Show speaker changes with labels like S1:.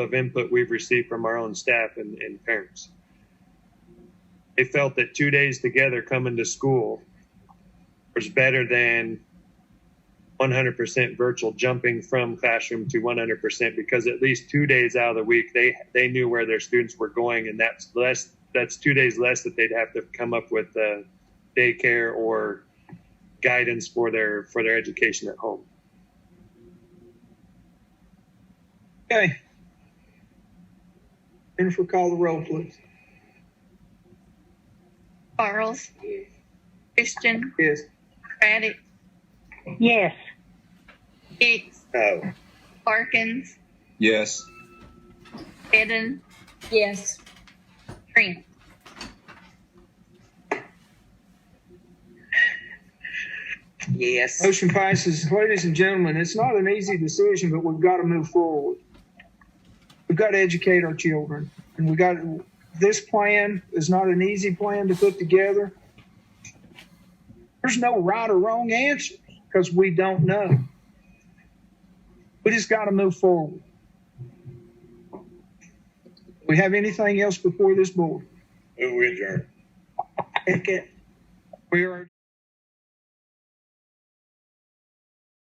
S1: of input we've received from our own staff and, and parents. They felt that two days together coming to school was better than 100% virtual jumping from classroom to 100% because at least two days out of the week they they knew where their students were going and that's less that's two days less that they'd have to come up with uh, daycare or guidance for their for their education at home.
S2: Okay. Jennifer, call the roll, please.
S3: Quarles. Christian.
S2: Yes.
S3: Craddock.
S4: Yes.
S3: Hicks.
S2: No.
S3: Parkins.
S5: Yes.
S3: Eden.
S6: Yes.
S3: Trent.
S6: Yes.
S2: Motion passes. Ladies and gentlemen, it's not an easy decision, but we've got to move forward. We've got to educate our children. And we got, this plan is not an easy plan to put together. There's no right or wrong answer because we don't know. We just got to move forward. We have anything else before this board?
S7: Move adjourned.
S2: We are.